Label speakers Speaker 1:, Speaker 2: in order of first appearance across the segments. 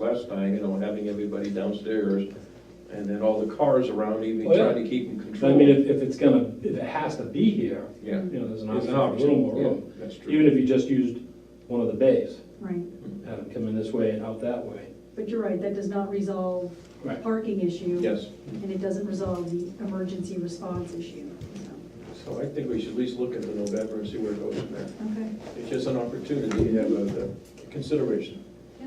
Speaker 1: last time, you know, having everybody downstairs and then all the cars around, even
Speaker 2: Oh, yeah.
Speaker 1: trying to keep them
Speaker 2: But I mean,
Speaker 1: controlled.
Speaker 2: if, if it's gonna, if it has to be here,
Speaker 1: Yeah.
Speaker 2: you know, there's an
Speaker 1: It's
Speaker 2: option for a little more
Speaker 1: yeah,
Speaker 2: room.
Speaker 1: That's true.
Speaker 2: Even if you just used one of the bays,
Speaker 3: Right,
Speaker 2: have them come in this way and out that way.
Speaker 3: but you're right, that does not resolve the
Speaker 2: Right.
Speaker 3: parking issue.
Speaker 1: Yes.
Speaker 3: And it doesn't resolve the emergency response issue, so,
Speaker 1: So I think we should at least look into November and see where it goes from there.
Speaker 3: okay,
Speaker 1: It's just an opportunity to have a a consideration.
Speaker 3: yeah.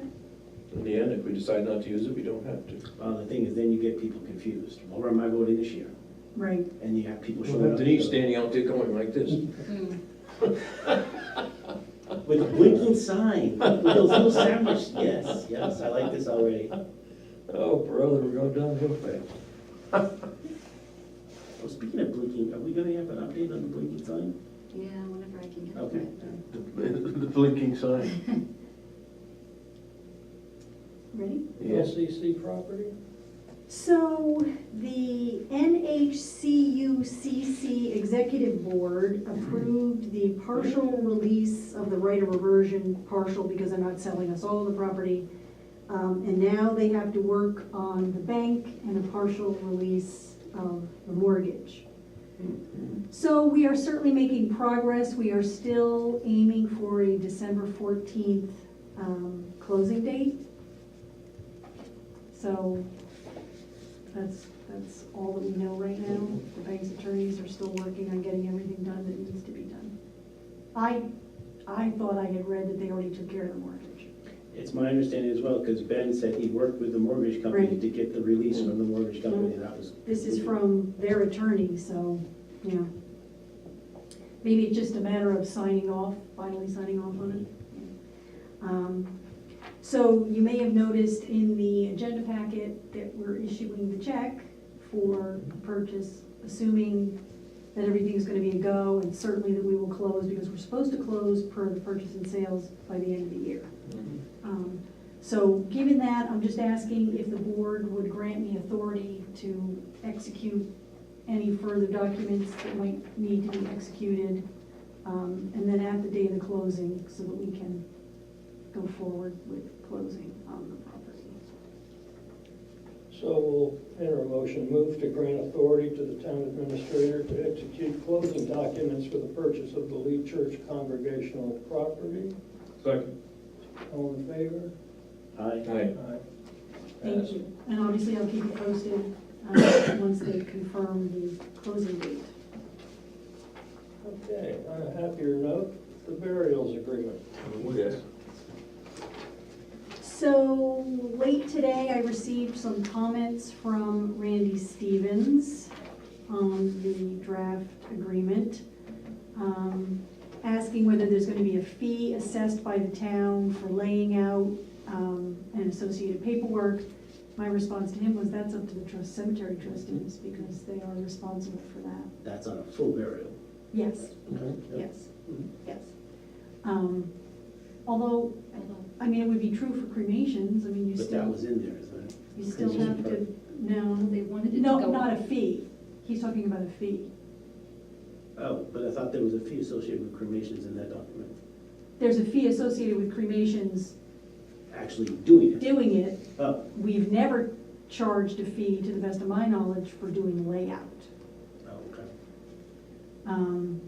Speaker 1: In the end, if we decide not to use it, we don't have to.
Speaker 4: Well, the thing is, then you get people confused. Where am I voting this year?
Speaker 3: Right,
Speaker 4: And you have people showing
Speaker 1: Well,
Speaker 4: up.
Speaker 1: Denise standing out there going like this.
Speaker 4: With a blinking sign, with those little sandwich, yes, yes, I like this already.
Speaker 1: Oh, brother, we're going downhill fast.
Speaker 4: Well, Speaking of blinking, are we gonna have an update on the blinking sign?
Speaker 5: Yeah, whenever I can get
Speaker 4: Okay.
Speaker 5: it done.
Speaker 1: The blinking sign.
Speaker 3: ready?
Speaker 1: The LCC property?
Speaker 3: So the NHCUCC Executive Board approved the partial release of the right of reversion, partial because they're not selling us all the property. Um, And now they have to work on the bank and a partial release of the mortgage. So we are certainly making progress. We are still aiming for a December 14th um, closing date. So that's, that's all that we know right now. The bank's attorneys are still working on getting everything done that needs to be done. I, I thought I had read that they already took care of the mortgage.
Speaker 4: It's my understanding as well, because Ben said he worked with the mortgage company
Speaker 3: Right. Mm-hmm.
Speaker 4: to get the release from the mortgage company, that was.
Speaker 3: This is from their attorney, so, you know. Maybe it's just a matter of signing off, finally signing off on it. Um, So you may have noticed in the agenda packet that we're issuing the check for purchase, assuming that everything's gonna be a go, and certainly that we will close, because we're supposed to close per the purchase and sales by the end of the year. Um, So given that, I'm just asking if the board would grant me authority to execute any further documents that might need to be executed, um, and then at the day of the closing, so that we can go forward with closing on the property.
Speaker 6: So we'll enter a motion, move to grant authority to the town administrator to execute closing documents for the purchase of the Lee Church congregational property.
Speaker 1: Second.
Speaker 6: All in favor?
Speaker 4: Aye.
Speaker 1: Aye.
Speaker 6: Aye.
Speaker 3: Thank you. And obviously, I'll keep you posted, um, once they confirm the closing date.
Speaker 6: Okay, on a happier note, the burials agreement.
Speaker 1: Yes.
Speaker 3: So late today, I received some comments from Randy Stevens on the draft agreement, um, asking whether there's going to be a fee assessed by the town for laying out um, and associated paperwork. My response to him was that's up to the trust- cemetery trustees because they are responsible for that.
Speaker 4: That's on a full burial.
Speaker 3: Yes,
Speaker 4: Okay.
Speaker 3: yes, yes. Um, Although,
Speaker 5: I don't-
Speaker 3: I mean, it would be true for cremations, I mean, you
Speaker 4: But
Speaker 3: still.
Speaker 4: that was in there, isn't it?
Speaker 3: You still have to, no,
Speaker 5: They wanted it to
Speaker 3: no,
Speaker 5: go
Speaker 3: not a
Speaker 5: up.
Speaker 3: fee. He's talking about a fee.
Speaker 4: Oh, but I thought there was a fee associated with cremations in that document,
Speaker 3: There's a fee associated with cremations
Speaker 4: actually doing it.
Speaker 3: doing it.
Speaker 4: Oh,
Speaker 3: We've never charged a fee, to the best of my knowledge, for doing layout.
Speaker 4: oh, okay.
Speaker 3: Um,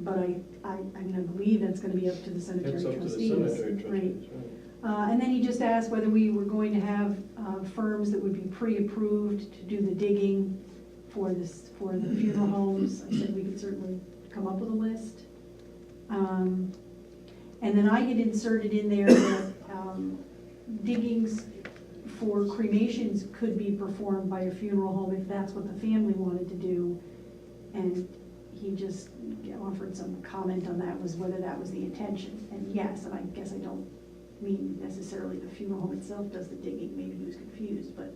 Speaker 3: But I, I, I mean, I believe that's gonna be up to the cemetery
Speaker 1: It's up to the
Speaker 3: trustees.
Speaker 1: cemetery
Speaker 3: Right.
Speaker 1: trustees, right?
Speaker 3: Uh, And then he just asked whether we were going to have uh, firms that would be pre-approved to do the digging for this, for the funeral homes. I said we could certainly come up with a list. Um, And then I had inserted in there that um, diggings for cremations could be performed by a funeral home if that's what the family wanted to do. And he just offered some comment on that, was whether that was the intention. And yes, and I guess I don't mean necessarily the funeral home itself does the digging, maybe he was confused, but,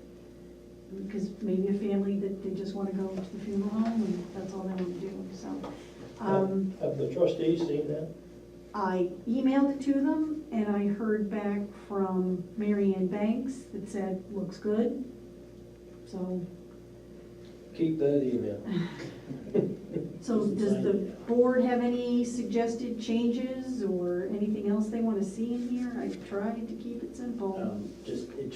Speaker 3: because maybe a family that they just want to go to the funeral home and that's all they want to do, so. um,
Speaker 6: Have the trustees seen that?
Speaker 3: I emailed it to them and I heard back from Mary Ann Banks that said, looks good. So,
Speaker 6: Keep that email.
Speaker 3: so does the board have any suggested changes or anything else they want to see in here? I tried to keep it simple.
Speaker 4: Um, Just